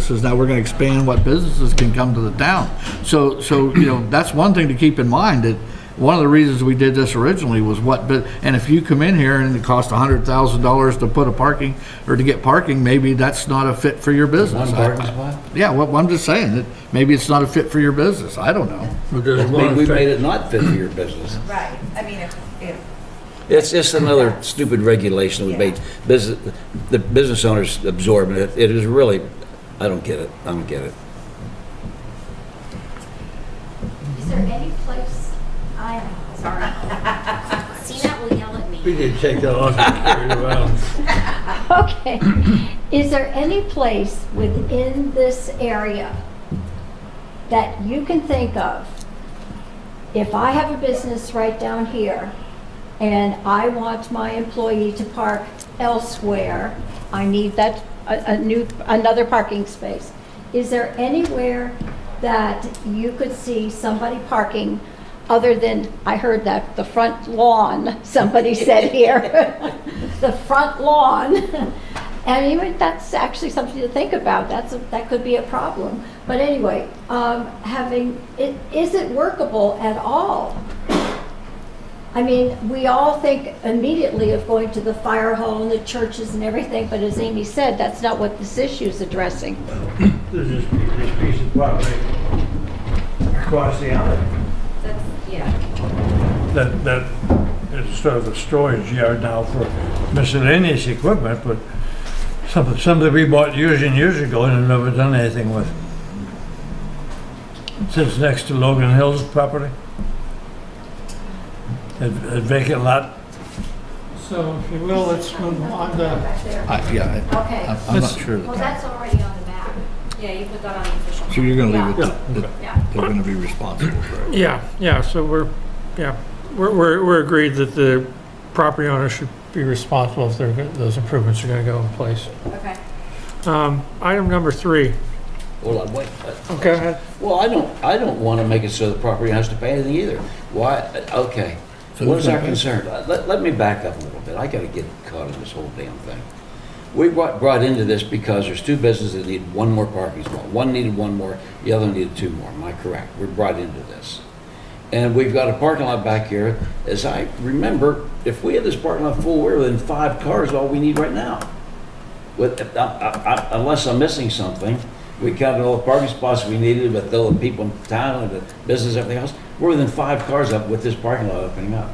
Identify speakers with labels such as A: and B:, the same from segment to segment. A: businesses. Now we're going to expand what businesses can come to the town. So, so, you know, that's one thing to keep in mind, that one of the reasons we did this originally was what, bu- and if you come in here and it costs $100,000 to put a parking, or to get parking, maybe that's not a fit for your business.
B: One parking spot?
A: Yeah, well, I'm just saying that maybe it's not a fit for your business. I don't know.
C: Because
B: Maybe
C: one
B: we made
C: thing,
B: it not fit for your business.
D: Right, I mean, if, if,
B: It's just another stupid regulation we made. Business, the business owners absorbing it. It is really, I don't get it. I don't get it.
E: Is there any place, I am sorry. Sina will yell at
C: we
E: me.
C: need to take that off and carry it around.
E: Okay. Is there any place within this area that you can think of? If I have a business right down here and I want my employee to park elsewhere, I need that, a, a new, another parking space. Is there anywhere that you could see somebody parking other than, I heard that, the front lawn, somebody said here. The front lawn. And even, that's actually something to think about, that's, a- that could be a problem. But anyway, um, having, it, is it workable at all? I mean, we all think immediately of going to the fire hall and the churches and everything, but as Amy said, that's not what this issue's addressing.
F: There's this, this piece of property across the alley
D: that's, yeah,
F: that, that is sort of a storage yard now for miscellaneous equipment, but something, something we bought years and years ago and have never done anything with. It Sits next to Logan Hills property. A a vacant lot.
G: So if you will, let's move on to,
E: Back there.
A: I, yeah, I-
E: Okay,
A: I'm- I'm not
G: This-
A: sure.
E: well, that's already on the map.
D: yeah, you put that on the official.
A: So you're going to leave it,
G: Yeah.
A: to- that
E: Yeah.
A: they're going to be responsible for it.
G: yeah, yeah, so we're, yeah, we're, we're we're agreed that the property owner should be responsible if they're, go- those improvements are going to go in place.
D: Okay.
G: Um, Item number three.
B: Well, I- wait. I-
G: Okay, ahead.
B: Well, I don't, I don't want to make it so the property owner has to pay anything either. Why, okay.
A: So
B: What is
A: who's
B: our
A: gonna pay?
B: concern? Let, let me back up a little bit. I got to get caught in this whole damn thing. We brought, brought into this because there's two businesses that need one more parking spot. One needed one more, the other needed two more. Am I correct? We're brought into this. And we've got a parking lot back here. As I remember, if we had this parking lot full, we're within five cars, all we need right now. With, I- I- I- unless I'm missing something, we counted all the parking spots we needed, but though the people in town and the business, everything else, we're within five cars up with this parking lot opening up.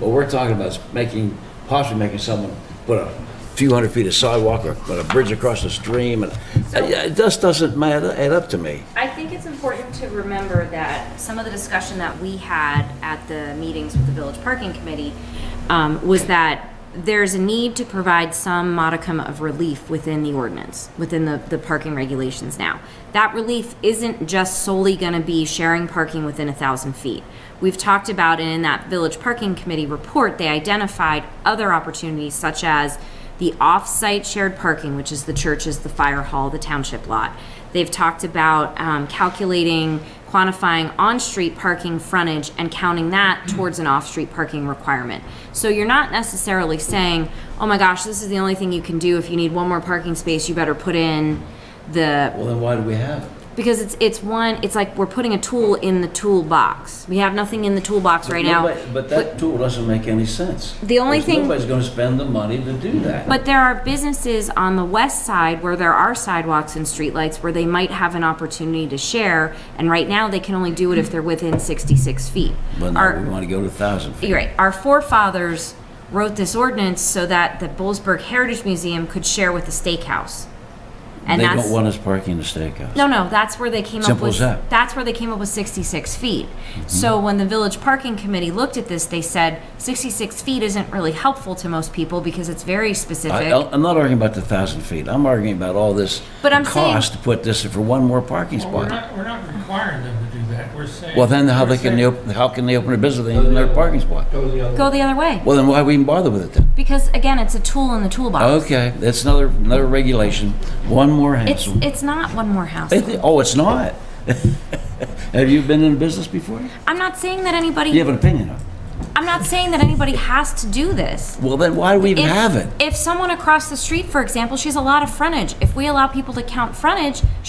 B: What we're talking about is making, possibly making someone put a few hundred feet of sidewalk or put a bridge across the stream, and it it just doesn't matter, add up to me.
H: I think it's important to remember that some of the discussion that we had at the meetings with the Village Parking Committee um, was that there's a need to provide some modicum of relief within the ordinance, within the, the parking regulations now. That relief isn't just solely going to be sharing parking within a thousand feet. We've talked about, and in that Village Parking Committee report, they identified other opportunities such as the off-site shared parking, which is the churches, the fire hall, the township lot. They've talked about um, calculating, quantifying on-street parking frontage and counting that towards an off-street parking requirement. So you're not necessarily saying, oh my gosh, this is the only thing you can do. If you need one more parking space, you better put in the
B: Well, then why do we have it?
H: because it's it's one it's like we're putting a tool in the toolbox. We have nothing in the toolbox right now.
B: Nobody- But that tool doesn't make any sense.
H: The only
B: Because
H: thing-
B: Nobody's gonna spend the money to do that.
H: But there are businesses on the west side where there are sidewalks and streetlights where they might have an opportunity to share, and right now they can only do it if they're within 66 feet.
B: But
H: Our-
B: no, we wanna go to a thousand feet.
H: you're right. Our forefathers wrote this ordinance so that the Bollesburg Heritage Museum could share with the steakhouse. And
B: They
H: that's
B: don't want us parking in the steakhouse.
H: No, no, that's where they came up
B: Simple
H: with.
B: as that. Mm-hmm.
H: That's where they came up with 66 feet. So when the village parking committee looked at this, they said 66 feet isn't really helpful to most people because it's very
B: I,
H: specific.
B: I'm not arguing about the thousand feet. I'm arguing about all this
H: But I'm saying-
B: cost to put this for one more parking spot.
G: we're not requiring them to do that, we're saying.
B: Well, then how they can, they op- how can they open a business with another parking spot?
H: Go the other way
B: Well, then why we even bother with it then?
H: because again, it's a tool in the toolbox.
B: Okay, that's another, another regulation. One more
H: It's
B: hassle.
H: it's not one more house.
B: It- Oh, it's not? Have you been in business before?
H: I'm not saying that anybody.
B: You have an opinion on it.
H: I'm not saying that anybody has to do this.
B: Well, then why do we even
H: if,
B: have it?
H: If someone across the street, for example, she has a lot of frontage. If we allow people to count frontage,